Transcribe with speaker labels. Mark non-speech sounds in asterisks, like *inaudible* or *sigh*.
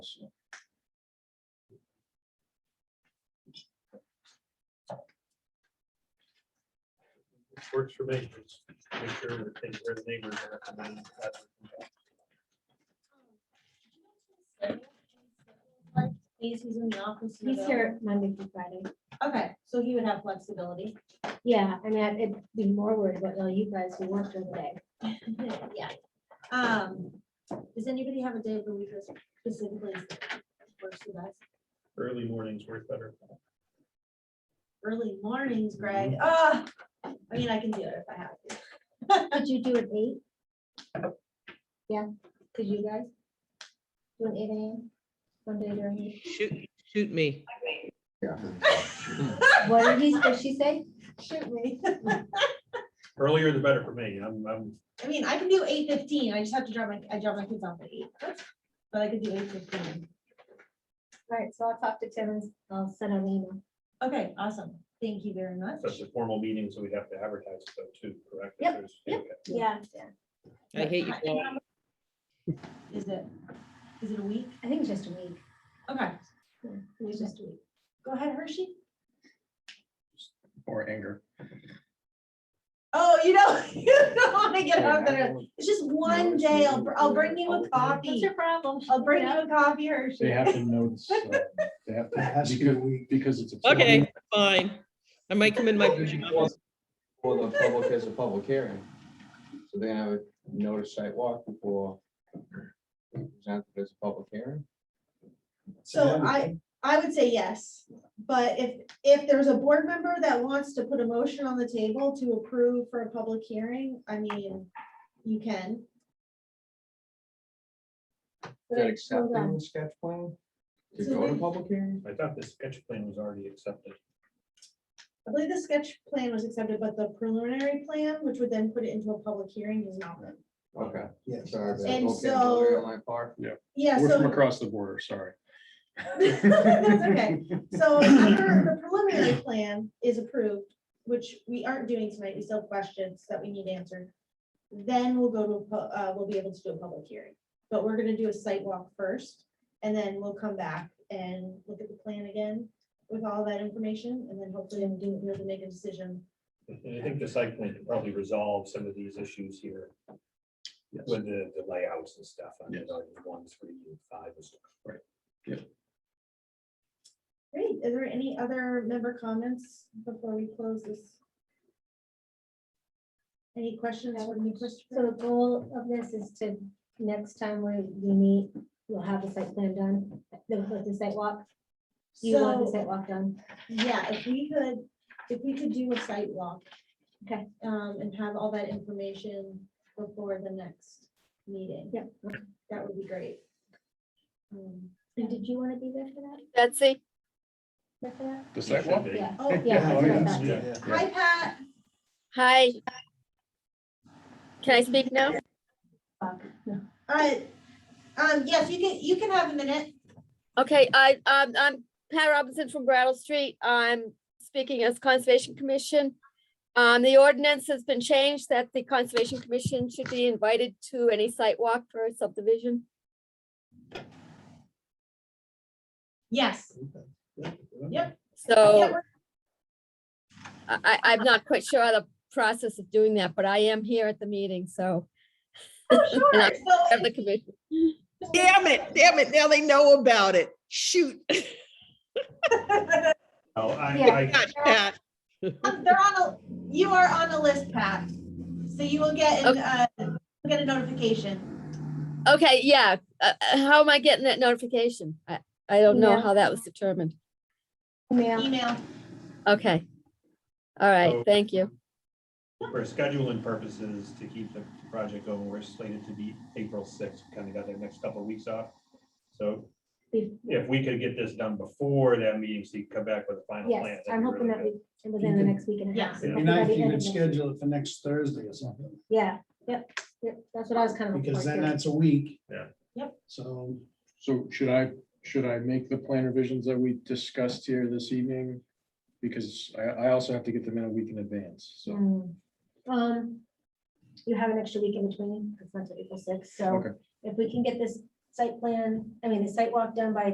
Speaker 1: Works for me. Just Make sure that they, where the neighbors are. and then that's-
Speaker 2: He's, he's in the office. and
Speaker 3: He's
Speaker 2: available.
Speaker 3: here Monday through Friday.
Speaker 2: Okay, so he would have
Speaker 3: *laughs*
Speaker 2: flexibility.
Speaker 3: Yeah, I mean, I'd I'd be more worried about all you guys who work during the day.
Speaker 2: Yeah. Um, does anybody have a day of the week that specifically works for us?
Speaker 1: Early mornings work better.
Speaker 2: Early mornings, Greg. Ah, I mean, I can do it if I have to.
Speaker 3: Could you do an eight? Yeah, could you guys? Do an eight AM? One day during the,
Speaker 4: Shoot, shoot me.
Speaker 3: what did he, did she say?
Speaker 2: Shoot me.
Speaker 1: Earlier the better for me. I'm, I'm,
Speaker 2: I mean, I can do eight fifteen. I just have to drop my, I drop my kids off at eight. But I could do eight fifteen.
Speaker 3: All right, so I'll talk to Tim and I'll send an email.
Speaker 2: Okay, awesome. Thank you very much.
Speaker 1: that's a formal meeting, so we'd have to advertise it though too, correct?
Speaker 3: Yep,
Speaker 1: There's-
Speaker 2: yep.
Speaker 1: okay.
Speaker 3: Yeah, yeah.
Speaker 4: I hate you. Paul.
Speaker 2: Is it, is it a week?
Speaker 3: I think it's just a week.
Speaker 2: Okay,
Speaker 3: Yeah, It's just a week.
Speaker 2: go ahead, Hershey. *laughs*
Speaker 5: or anger.
Speaker 2: Oh, you don't, *laughs* you don't want to get out there. It's just one
Speaker 5: it's
Speaker 2: day.
Speaker 5: not
Speaker 2: I'll,
Speaker 5: really
Speaker 2: I'll
Speaker 5: fair.
Speaker 2: bring you a
Speaker 5: I'll-
Speaker 2: coffee.
Speaker 3: problem?
Speaker 2: I'll bring you a coffee,
Speaker 5: They
Speaker 2: Hershey.
Speaker 5: have to notice, uh, they have
Speaker 6: It has
Speaker 5: to,
Speaker 6: to be a
Speaker 5: because,
Speaker 6: week.
Speaker 5: because it's. a-
Speaker 4: Okay, fine. I might come in my
Speaker 7: Well, the public has a public hearing. So they're gonna have a notice site walk before. Presented as a public hearing.
Speaker 2: So I, I would say yes, but if, if there's a board member that wants to put a motion on the table to approve for a public hearing, I mean, you can.
Speaker 7: Is that
Speaker 3: Hold on.
Speaker 7: accepting the sketch plan? To
Speaker 2: So
Speaker 7: go to
Speaker 2: we-
Speaker 7: public hearing?
Speaker 1: I thought the sketch plan was already accepted.
Speaker 2: I believe the sketch plan was accepted, but the preliminary plan, which would then put it into a public hearing, is not.
Speaker 7: Okay.
Speaker 6: Yes.
Speaker 7: sorry, that's
Speaker 2: And
Speaker 7: okay,
Speaker 2: so-
Speaker 7: Lori, my part.
Speaker 2: Yeah,
Speaker 5: We're from
Speaker 2: so.
Speaker 5: across the border, sorry.
Speaker 2: That's okay. So after the preliminary plan is approved, which we aren't doing tonight, we still have questions that we need answered. Then we'll go to, a pu- uh, we'll be able to do a public hearing, but we're gonna do a site walk first. And then we'll come back and look at the plan again with all that information and then hopefully we'll do, we'll make a decision.
Speaker 1: And I think the site plan can probably resolve some of these issues here
Speaker 5: Yes.
Speaker 1: with the, the layouts and stuff. I mean,
Speaker 5: Yes.
Speaker 1: like one, three, and five and stuff. Right.
Speaker 2: Great, is there any other member comments before we close this? Any questions for me,
Speaker 3: So
Speaker 2: Christopher?
Speaker 3: the goal of this is to, next time we we meet, we'll have the site plan done, the, the site walk. You want the
Speaker 2: So-
Speaker 3: site walk done?
Speaker 2: Yeah, if we could, if we could do a site walk.
Speaker 3: Okay.
Speaker 2: Um, and have all that information before the next meeting.
Speaker 3: Yep.
Speaker 2: That would be great. Um,
Speaker 3: And did you want to be there for that?
Speaker 8: Betsy?
Speaker 3: there
Speaker 6: *laughs*
Speaker 3: for that?
Speaker 5: The
Speaker 1: It should
Speaker 5: sidewalk,
Speaker 1: be.
Speaker 3: Yeah.
Speaker 2: Oh,
Speaker 3: Yeah,
Speaker 6: Oh,
Speaker 3: that's what I thought.
Speaker 6: yeah.
Speaker 5: Yeah.
Speaker 2: hi, Pat.
Speaker 8: Hi. Can I speak now?
Speaker 2: Uh, um, yes, you can, you can have a minute.
Speaker 8: Okay, I, um, I'm Pat Robinson from Brattle Street. I'm speaking as Conservation Commission. Um, the ordinance has been changed that the Conservation Commission should be invited to any site walk for subdivision.
Speaker 2: Yes. Yeah,
Speaker 8: So
Speaker 2: we're-
Speaker 8: I, I- I'm not quite sure how the process of doing that, but I am here at the meeting, so.
Speaker 2: oh, sure. So
Speaker 8: Of the commission.
Speaker 4: Damn it, damn it. Now they know about it. Shoot.
Speaker 1: Oh, I,
Speaker 3: Yeah.
Speaker 1: I,
Speaker 4: Gosh, Pat.
Speaker 2: um, They're on a, you are on a list, Pat. So you will get, an, uh, you'll get a notification.
Speaker 8: Okay, yeah. Uh, uh, how am I getting that notification? I, I don't know
Speaker 3: Email.
Speaker 8: how that was determined.
Speaker 3: Mail.
Speaker 2: Email.
Speaker 8: Okay. All
Speaker 1: So-
Speaker 8: right, thank you.
Speaker 1: for scheduling purposes, to keep the project going, we're slated to be April sixth, kind of got the next couple of weeks off. So
Speaker 3: Be-
Speaker 1: if we could get this done before that meeting, so you can come back with a final plan.
Speaker 3: Yes,
Speaker 1: that'd be
Speaker 3: I'm hoping
Speaker 1: really
Speaker 3: that
Speaker 1: good.
Speaker 3: we, within the
Speaker 6: can-
Speaker 3: next week and a
Speaker 2: Yeah.
Speaker 3: half.
Speaker 1: It'd
Speaker 6: It'd be
Speaker 3: hopefully by
Speaker 6: nice
Speaker 3: the
Speaker 6: if you
Speaker 3: end
Speaker 6: could
Speaker 3: of next week.
Speaker 6: schedule it for next Thursday or something,
Speaker 3: Yeah, yep, yep, that's what I was kind of.
Speaker 6: because then
Speaker 3: looking for,
Speaker 6: that's a week.
Speaker 1: Yeah.
Speaker 2: Yep.
Speaker 6: So
Speaker 5: so should I, should I make the plan revisions that we discussed here this evening? Because I, I also have to get them in a week in advance,
Speaker 3: too.
Speaker 5: so.
Speaker 3: Mm. Um, you have an extra week in between, because that's April sixth, so
Speaker 5: Okay.
Speaker 3: if we can get this site plan, I mean, the site walk done by